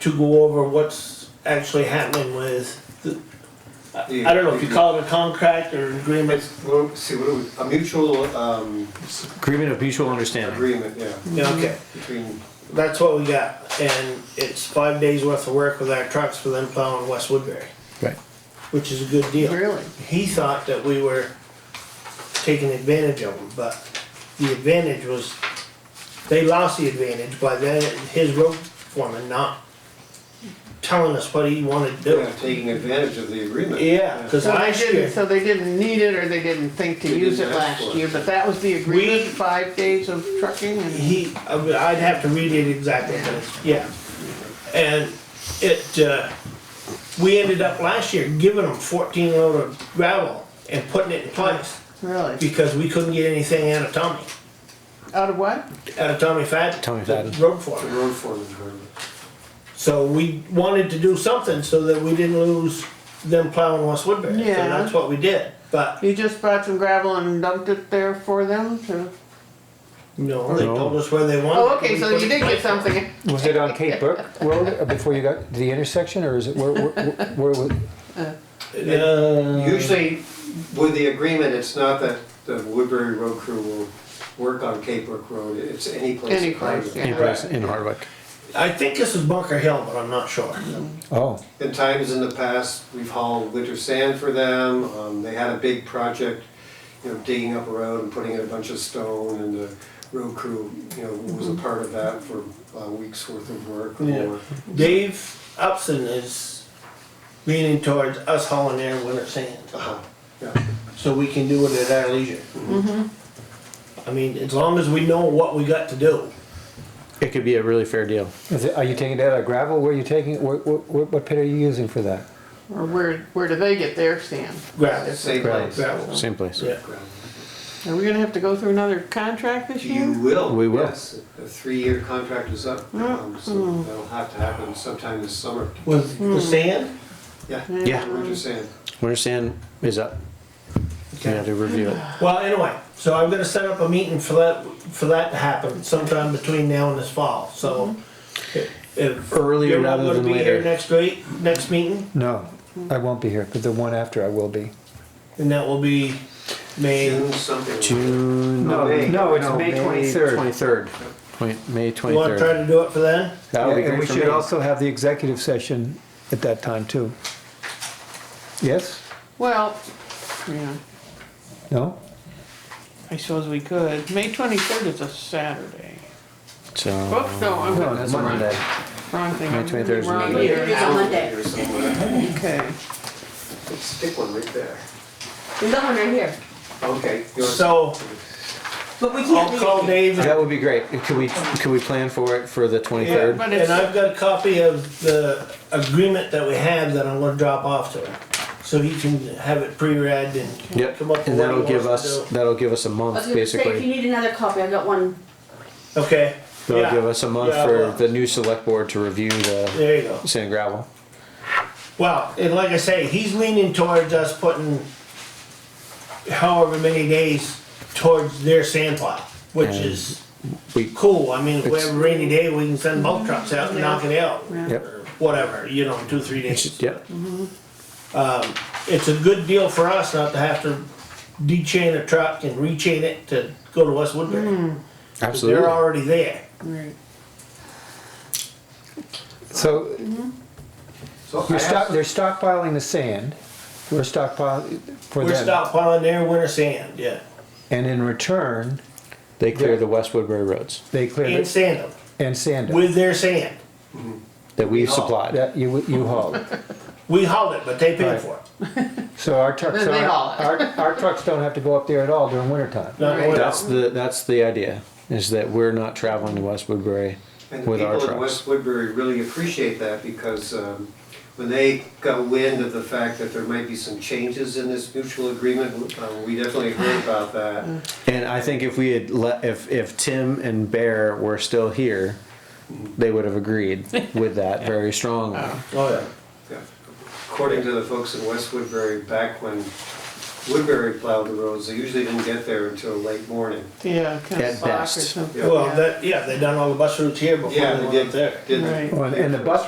to go over what's actually happening with the, I I don't know if you call it a contract or an agreement, It's, well, see, what do we, a mutual, um, Agreement of mutual understanding. agreement, yeah, yeah, okay. between, That's what we got, and it's five days worth of work with our trucks for them plowing West Woodbury, Right. which is a good deal. Really? He thought that we were taking advantage of them, but the advantage was, they lost the advantage by then, his road foreman not telling us what he wanted to do. yeah, taking advantage of the agreement. Yeah, cause So they last didn't, year, so they didn't need it, or they didn't think to They use it didn't ask for last it. year, but that was the We- agreement, five days of trucking and. he, I would- I'd have to read it exactly, but it's, yeah. And it, uh, we ended up last year giving them fourteen load of gravel and putting it in place Really? because we couldn't get anything out of Tommy, Out of what? out of Tommy Fadden. Tommy the Fadden. Road The foreman. road foreman's agreement. So we wanted to do something so that we didn't lose them plowing West Woodbury. So Yeah. that's what we did, but, You just brought some gravel and dumped it there for them to? no, they No. told us where they wanted. Oh, it, okay, we so put you it did in get place. something. Was it on Cape Burke Road uh, before you got to the intersection, or is it where? Where? where, where Uh, Usually, with the agreement, it's not that the Woodbury Road crew will work on Cape Brook Road, it's any place. Any place, private. in, Bryce- in Hardwick. I think this is Bunker Hill, but I'm not sure. Oh, In times in the past, we've hauled winter sand for them, um, they had a big project, you know, digging up a road and putting in a bunch of stone, and the road crew, you know, was a part of that for a week's worth of work or Mm-hmm. Yeah. more. Dave Upson is leaning towards us hauling their winter sand, Uh-huh, yeah. so we can do it at our leisure. Mm-hmm. I mean, as long as we know what we got to do. It could be a really fair deal. is it, are you taking that out of gravel? Where are you taking? it? Where, where, what pit are you using for that? Or where, where do they get their sand? Gravel, Same place. gravel, Same place. yeah. Are we gonna have to go through another contract this You year? will. We will. Mm-hmm. yes. The three-year contract is up, um, so that'll have to happen sometime this summer. With Hmm. the sand? Yeah. Yeah. What you're saying. Winter sand is up. We have to review it. Well, anyway, so I'm gonna set up a meeting for that, for that to happen sometime between now and this fall, so. if Mm-hmm. Earlier you're not rather gonna than be here later. Next week, next meeting, No, I won't be here, but the one after I will be. and that will be May, June something. June No, May. no, it's May 23rd. Twenty third. May you wanna twenty try to third. do it for then? That would be and great we for should me. also have the executive session at that time too. Yes? Well, yeah, No? I suppose we could. May twenty-third is a Saturday. So Oops, no, I'm, No, it's Monday. wrong thing. May I'm 23rd is wrong Monday. year. It's on Monday. Or somewhere. Okay. Stick one right there. There's that one right here. Okay. you want- So, But we can't I'll leave. call Dave and that would be great. Could we could we plan for it for the twenty Yeah, third? But and it's- I've got a copy of the agreement that we have that I'm gonna drop off to her. So he can have it pre-read and Yep. come up with And what he that'll give wants to us that'll give us a I was month gonna say, if you basically. need another copy, I got one. do. Okay, That'll give yeah, us a month Yeah, well. for the new select board to review the there you go. sand and gravel. Well, and like I say, he's leaning towards us putting however many days towards their sand pile, which And is we- cool. I mean, if we It's- have a rainy day, we can send bulk trucks out and knock it out. Yeah. Yep. or Whatever, you know, in two, three days. Yep. it's a good deal for us not to have to de-chain a truck and re-chain it to go to West Woodbury. Absolutely. They're already there. Right. So So I You're have stock, they're stockpiling the sand, we're stockpiling for We're them. stockpiling their winter sand, yeah, And in return, They clear Yeah. the West Woodbury roads they clear and it sand them and sand it. with their sand. that we've Oh. supplied. That you, you hauled. We hauled it, but they paid Right. for it. So our trucks, Then they don't- haul it. our, our trucks don't have to go up there at all during winter time. Not Right. going That's out. the, that's the idea, is that we're not traveling to West Woodbury And the with our people in trucks. West Woodbury really appreciate that because um, when they got wind of the fact that there might be some changes in this mutual agreement, uh, we definitely heard about Mm-hmm. that. And I think if we had let, if, if Tim and Bear were still here, they would have agreed with that very strongly. Oh, yeah. Yeah. According to the folks in West Woodbury, back when Woodbury plowed the roads, they usually didn't get there until late morning. Yeah, kind At of sock or best. something. Yeah. Well, yeah. that, yeah, they done all the bus routes here before Yeah, they they went up did, there. did. Right. Well, And the bus